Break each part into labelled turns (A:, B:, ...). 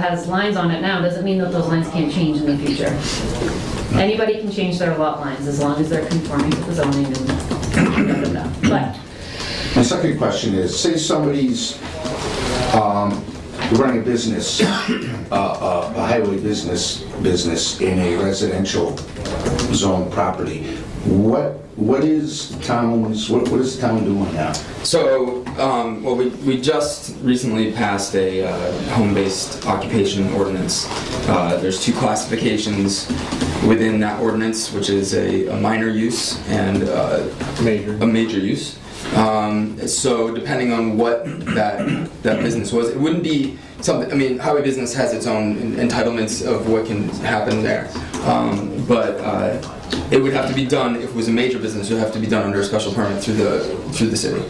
A: has lines on it now, doesn't mean that those lines can't change in the future. Anybody can change their lot lines as long as they're conforming to the zoning and da, da, da. But
B: My second question is, say somebody's um, running a business, uh, uh, a highway business, business in a residential zone property, what, what is town's, what what is the town doing now?
C: So, um, well, we, we just recently passed a uh, home-based occupation ordinance. Uh, there's two classifications within that ordinance, which is a, a minor use and uh,
D: Major.
C: a major use. Um, so depending on what that that business was, it wouldn't be something. I mean, highway business has its own en- entitlements of what can happen there, um, but uh, it would have to be done if it was a major business. It would have to be done under a special permit through the through the city.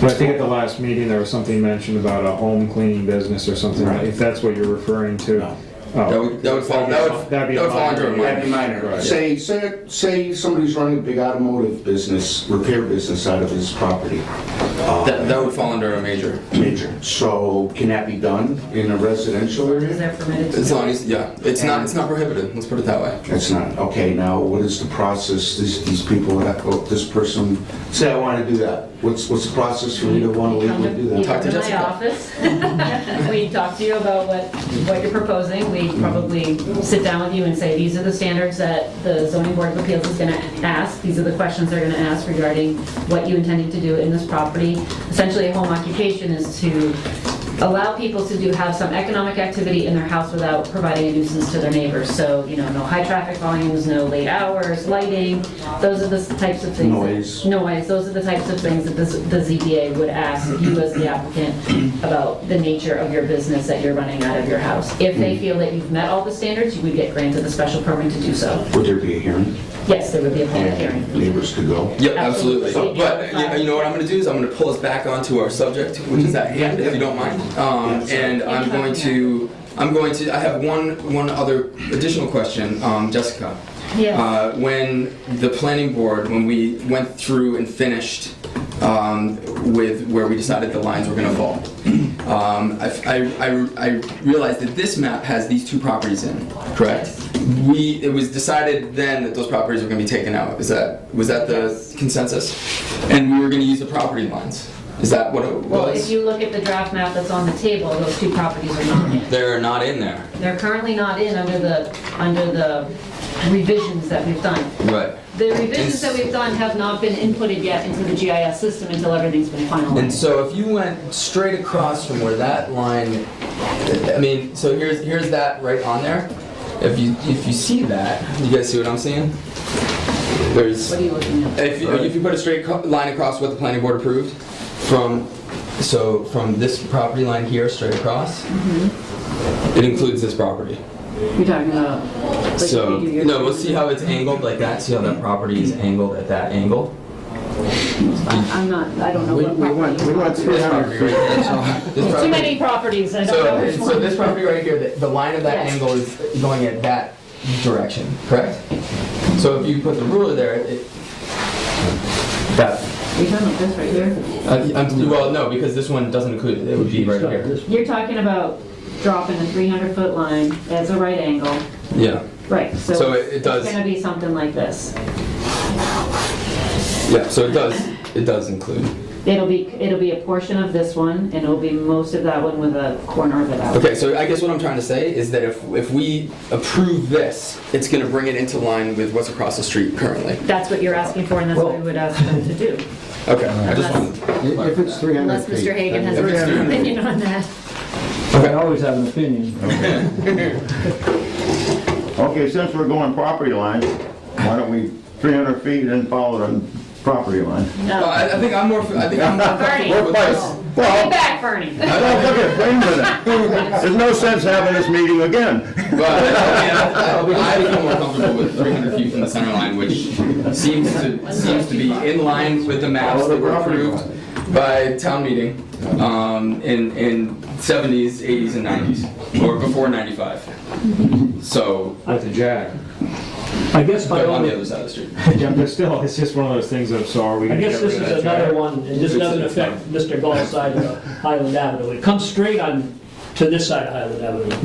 D: But I think at the last meeting, there was something mentioned about a home cleaning business or something,
C: Right.
D: if that's what you're referring to.
B: No.
D: Oh.
C: That would, that would fall. That would,
D: That'd be a
C: that would fall under a
D: minor.
C: minor.
B: minor. Say, say, say somebody's running a big automotive business, repair business out of his property,
C: That, that would fall under a major.
B: major. So can that be done in a residential
A: is
B: area?
A: there permitted to?
C: As long as yeah, it's not it's not prohibited. Let's put it that way.
B: That's not, okay, now what is the process, these, these people, that- oh, this person, say I wanna do that, what's, what's the process for me to wanna
A: You come
B: legally
A: to-
B: do
A: you
B: that?
C: Talk to
A: come
C: Jessica.
A: my office. We talk to you about what, what you're proposing. We
B: Mm-hmm.
A: probably sit down with you and say, these are the standards that the zoning board of appeals is gonna ask. These are the questions they're gonna ask regarding what you intended to do in this property. Essentially, a home occupation is to allow people to do, have some economic activity in their house without providing a nuisance to their neighbors. So, you know, no high traffic volumes, no late hours, lighting, those are the types of things. that-
B: Noise.
A: noise, those are the types of things that the Z- the ZBA would ask you as the applicant about the nature of your business that you're running out of your house. If they feel that you've met all the standards, you would get granted the special permit to do so.
B: Would there be a hearing?
A: Yes, there would be a public hearing.
B: Neighbors could go?
C: Yeah, absolutely.
A: Absolutely.
C: But you- you know what I'm going to do is I'm going to pull us back onto our subject, which is at hand, if you don't mind. Um, and I'm going to, I'm going to, I have one, one other additional question, um, Jessica.
A: Yes.
C: Uh, when the planning board, when we went through and finished um, with where we decided the lines were going to fall, um, I, I, I, I realized that this map has these two properties in, correct? We, it was decided then that those properties were going to be taken out. Is that, was that the consensus? And we were going to use the property lines. Is that what it
A: Well, if
C: was?
A: you look at the draft map that's on the table, those two properties are not in.
C: They're not in there.
A: They're currently not in under the, under the revisions that we've done.
C: Right.
A: The revisions that we've done have not been inputted yet into the GIS system until everything's been
C: And
A: finalized.
C: so if you went straight across from where that line, I mean, so here's here's that right on there. If you if you see that, you guys see what I'm seeing? There's
A: What are you looking at?
C: if you, if you put a straight co- line across what the planning board approved from so from this property line here straight across, it includes this property.
E: You're talking about. Mm-hmm. like,
C: so
E: you do your-
C: no, we'll see how it's angled like that. See how that property is angled at that angle.
E: I- I'm not, I don't know what property. you want.
C: This property right here. This
A: Too
C: property-
A: many properties, I don't know
C: So,
A: which
C: so
A: one.
C: this property right here, the, the line of that
A: Yes.
C: angle is going at that direction, correct? So if you put the ruler there, it, that,
E: You're talking about this right here?
C: uh, I'm- well, no, because this one doesn't include, it would be right here.
E: You're talking about dropping a 300 foot line as a right angle.
C: Yeah,
E: Right, so.
C: So it- it does-
E: It's gonna be something like this.
C: yeah, so it does, it does include.
E: It'll be, it'll be a portion of this one and it'll be most of that one with a corner of it out.
C: Okay, so I guess what I'm trying to say is that if, if we approve this, it's gonna bring it into line with what's across the street currently.
A: That's what you're asking for, and that's what we would ask them to do.
C: Okay, I just wanted.
F: If it's 300
A: Unless
F: feet.
A: Mr. Hagan has
C: Yeah.
A: a different opinion on that.
F: I always have an opinion.
G: Okay, since we're going property line, why don't we 300 feet and follow the property line?
C: Well, I, I think I'm more, I think I'm more comfortable with this.
A: Get
G: Well,
A: back, Bernie.
G: look at, wait a minute. There's no sense having this meeting again.
C: But I feel more comfortable with 300 feet from the center line, which seems to, seems to be in line with the maps that were approved by town meeting um, in, in 70s, 80s, and 90s, or before 95. So,
D: With the jag.
H: I guess my
C: but on the
H: only,
C: other side of the street.
D: Yeah, but still, it's just one of those things of, so are we
H: I
D: gonna get
H: guess
D: rid
H: this
D: of
H: is
D: that jag?
H: another one, and this doesn't affect Mr. Gall's side of Highland Avenue. It comes straight on to this side of Highland Avenue.